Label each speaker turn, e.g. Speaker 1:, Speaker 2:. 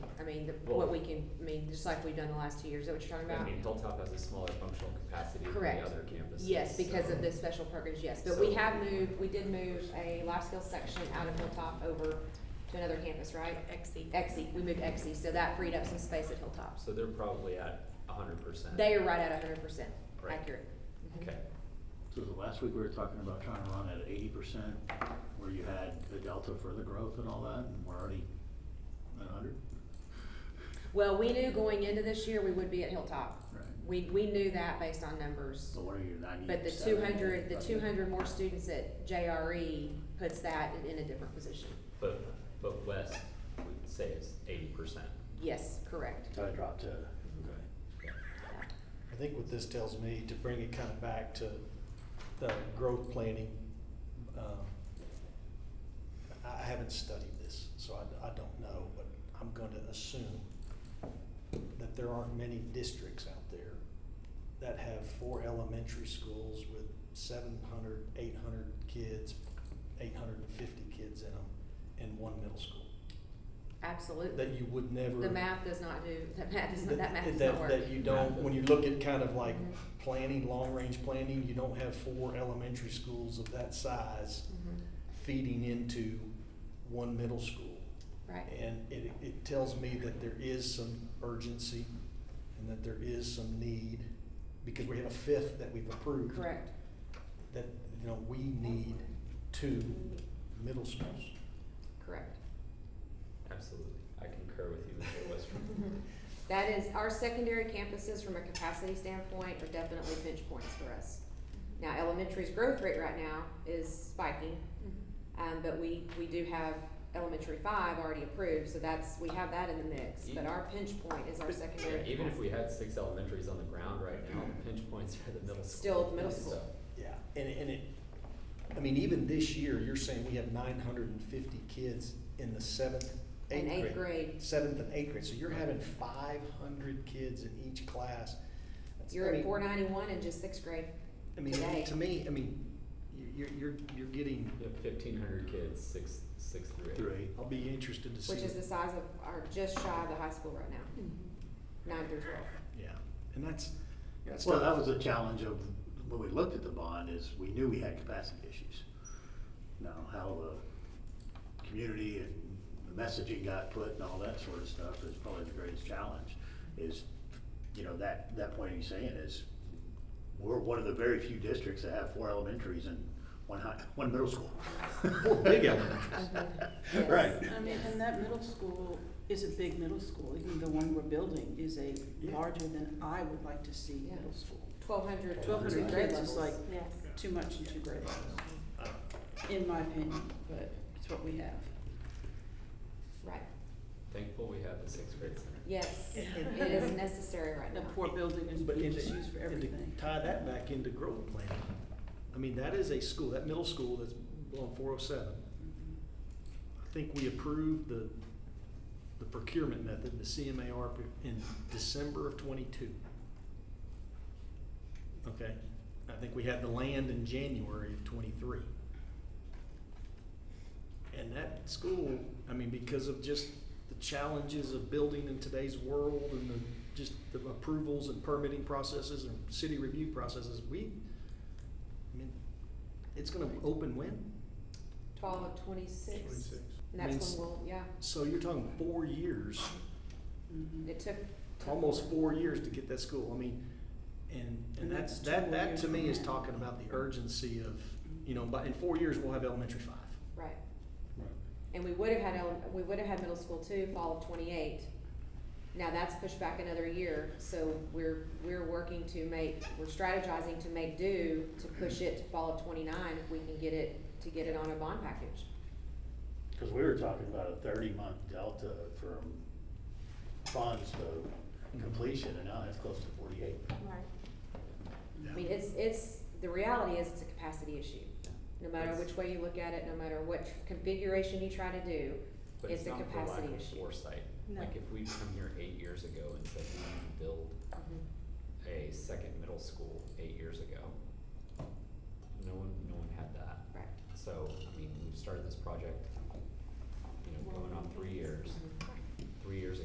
Speaker 1: mean, the-
Speaker 2: Well-
Speaker 1: what we can, I mean, just like we've done the last two years, is that what you're talking
Speaker 2: I
Speaker 1: about?
Speaker 2: mean, Hilltop has a smaller functional capacity than the
Speaker 1: Correct.
Speaker 2: other campuses.
Speaker 1: Yes, because
Speaker 2: so-
Speaker 1: of the special programs, yes, but we
Speaker 2: So-
Speaker 1: have moved, we did move a life skills section out of Hilltop over to another campus, right?
Speaker 3: Exceed.
Speaker 1: Exie, we moved Exie, so that freed up some space at Hilltop.
Speaker 2: So they're probably at a hundred percent.
Speaker 1: They are right at hundred percent
Speaker 2: Right.
Speaker 1: accurate. Mhm.
Speaker 2: Okay,
Speaker 4: So the last week we were talking about trying to run at eighty percent, where you had a delta for the growth and all that, and we're already at hundred?
Speaker 1: Well, we knew going into this year, we would be at Hilltop.
Speaker 4: Right.
Speaker 1: We, we knew that based on numbers.
Speaker 4: So what are your ninety
Speaker 1: But the two hundred, the two hundred more students at JRE puts that in a different position.
Speaker 2: but, but West would say it's eighty percent.
Speaker 1: Yes, correct.
Speaker 4: So I dropped to, okay.
Speaker 5: I think what this tells me, to bring it kind of back to the growth planning, um, I I haven't studied this, so I, I don't know, but I'm gonna assume that there aren't many districts out there that have four elementary schools with 700, 800 kids, eight hundred and fifty kids in them, and one middle school, that
Speaker 1: Absolutely.
Speaker 5: you would never.
Speaker 1: The math does not do, that math does not, that math does
Speaker 5: that-
Speaker 1: not work.
Speaker 5: That you don't, when you look at kind of like
Speaker 1: Mhm.
Speaker 5: planning, long-range planning, you don't have four elementary schools of that size
Speaker 1: Mhm.
Speaker 5: feeding into one middle school.
Speaker 1: Right,
Speaker 5: And it, it tells me that there is some urgency and that there is some need, because we have a fifth that we've approved.
Speaker 1: correct.
Speaker 5: That, you know, we need two middle schools.
Speaker 1: Correct.
Speaker 2: Absolutely, I concur with you there, Western.
Speaker 1: That is, our secondary campuses from a capacity standpoint are definitely pinch points for us. Now, elementary's growth rate right now is spiking, um, but we, we do have elementary five already approved, so that's, we have that in the mix.
Speaker 5: E-
Speaker 1: But our pinch point is our secondary.
Speaker 2: Even if we had six elementaries on the ground right now, the pinch points are the middle school.
Speaker 1: Still the middle school.
Speaker 2: So,
Speaker 5: Yeah, and, and it, I mean, even this year, you're saying we have nine hundred and fifty kids in the seventh, eighth
Speaker 1: In
Speaker 5: grade.
Speaker 1: eighth grade,
Speaker 5: Seventh and eighth grade, so you're having five hundred kids in each class. That's- I
Speaker 1: you're at
Speaker 5: mean-
Speaker 1: four ninety-one in just sixth grade.
Speaker 5: I mean,
Speaker 1: today.
Speaker 5: to me, I mean, you- you're, you're, you're getting,
Speaker 2: You have fifteen hundred kids, six, six through eight.
Speaker 4: Through eight.
Speaker 5: I'll be interested to see.
Speaker 1: Which is the size of, are just shy of the high school right now, nine through twelve.
Speaker 5: Yeah, and that's, that's.
Speaker 4: Well,
Speaker 5: tough.
Speaker 4: that was the challenge of, when we looked at the bond, is we knew we had capacity issues. Now, how the community and the messaging got put and all that sort of stuff is probably the greatest challenge, is, you know, that, that point he's saying is, we're one of the very few districts that have four elementaries and one high, one middle school.
Speaker 5: Four big elementaries.
Speaker 1: Yes.
Speaker 4: Right.
Speaker 6: I mean, and that middle school is a big middle school, even the one we're building is a larger than I would like to see
Speaker 1: Yeah.
Speaker 6: middle school.
Speaker 1: Twelve hundred.
Speaker 6: 1,200 kids is like
Speaker 3: Yes.
Speaker 6: too much in two grade levels, in my opinion, but it's what we have.
Speaker 1: Right,
Speaker 2: Thankful we have the sixth grade center.
Speaker 1: yes, it is necessary right
Speaker 6: That
Speaker 1: now.
Speaker 6: poor building is
Speaker 5: But
Speaker 6: being
Speaker 5: in,
Speaker 6: just used for
Speaker 5: and to
Speaker 6: everything.
Speaker 5: tie that back into growth planning, I mean, that is a school, that middle school that's on four oh seven.
Speaker 6: Mhm.
Speaker 5: I think we approved the, the procurement method, the CMAR pr- in December of twenty-two. Okay, I think we had the land in January of twenty-three. And that school, I mean, because of just the challenges of building in today's world and the, just the approvals and permitting processes and city review processes, we, I mean, it's gonna open when?
Speaker 1: Twelve of twenty-six. And that's
Speaker 5: Means-
Speaker 1: when we'll, yeah,
Speaker 5: So you're talking four years,
Speaker 6: Mhm.
Speaker 1: it took.
Speaker 5: almost four years to get that school, I mean, and, and
Speaker 6: And
Speaker 5: that's,
Speaker 6: that's
Speaker 5: that,
Speaker 6: two
Speaker 5: that
Speaker 6: years
Speaker 5: to me
Speaker 6: from
Speaker 5: is
Speaker 6: now.
Speaker 5: talking about the urgency of, you know, but in four years, we'll have elementary five.
Speaker 1: Right. And we would have had, ele- we would have had middle school too, fall of twenty-eight. Now that's pushed back another year, so we're, we're working to make, we're strategizing to make do to push it to fall of twenty-nine if we can get it, to get it on a bond package.
Speaker 4: Cause we were talking about a thirty-month delta from funds to completion, and now that's close to forty-eight.
Speaker 3: Right.
Speaker 1: I mean, it's, it's, the reality is it's a capacity issue. No matter
Speaker 2: It's-
Speaker 1: which way you look at it, no matter what configuration you try to do,
Speaker 2: But
Speaker 1: it's
Speaker 2: it's
Speaker 1: a
Speaker 2: not for lack
Speaker 1: capacity
Speaker 2: of
Speaker 1: issue.
Speaker 2: foresight.
Speaker 3: No.
Speaker 2: Like if we'd come here eight years ago and said we need to build
Speaker 1: Mhm.
Speaker 2: a second middle school eight years ago, no one, no one had that.
Speaker 1: Right.
Speaker 2: So, I mean, we started this project, you know, going on three years.
Speaker 1: Mhm.
Speaker 2: Three years